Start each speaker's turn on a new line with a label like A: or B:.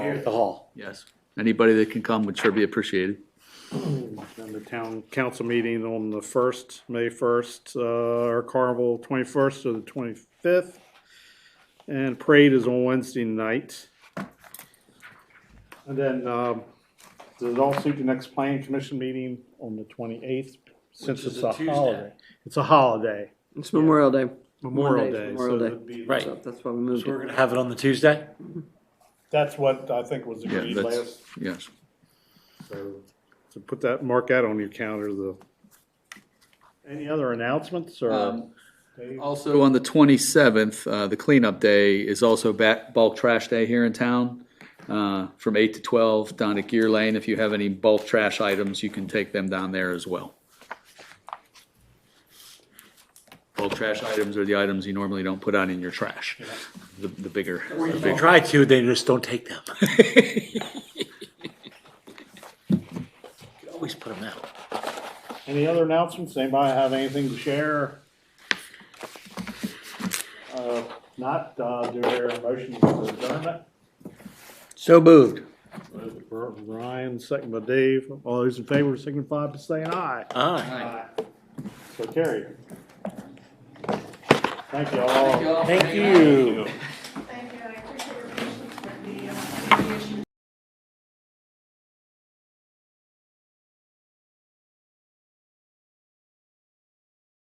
A: at the hall.
B: Yes, anybody that can come would sure be appreciated.
C: And the town council meeting on the first, May first, uh, or carnival twenty-first to the twenty-fifth. And parade is on Wednesday night. And then, um, there's also the next planning commission meeting on the twenty-eighth, since
D: Which is
C: it's
D: a
C: a
D: Tuesday.
C: holiday. It's a holiday,
E: It's Memorial Day.
C: Memorial
E: Monday's
C: Day, so
E: Memorial Day.
C: it'd be.
D: Right.
E: So that's why we moved
D: So we're
E: it.
D: gonna have it on the Tuesday?
C: That's what I think was
B: Yeah,
C: agreed
B: that's-
C: last,
B: Yes,
C: so, so put that, mark out on your calendar, the. Any other announcements or?
B: Um,
C: Dave?
B: also on the twenty-seventh, uh, the cleanup day is also back, bulk trash day here in town. Uh, from eight to twelve down at Gear Lane, if you have any bulk trash items, you can take them down there as well. Bulk trash items are the items you normally don't put out in your trash, the, the bigger.
D: If they try to, they just don't take them. Always put them out.
C: Any other announcements? Anybody have anything to share? Uh, Not, uh, do there a motion for adjournment?
E: So moved.
C: Ryan, second by Dave. All those in favor signify by saying aye.
D: Ah.
C: Aye. So carry. Thank you all.
D: Thank
C: you.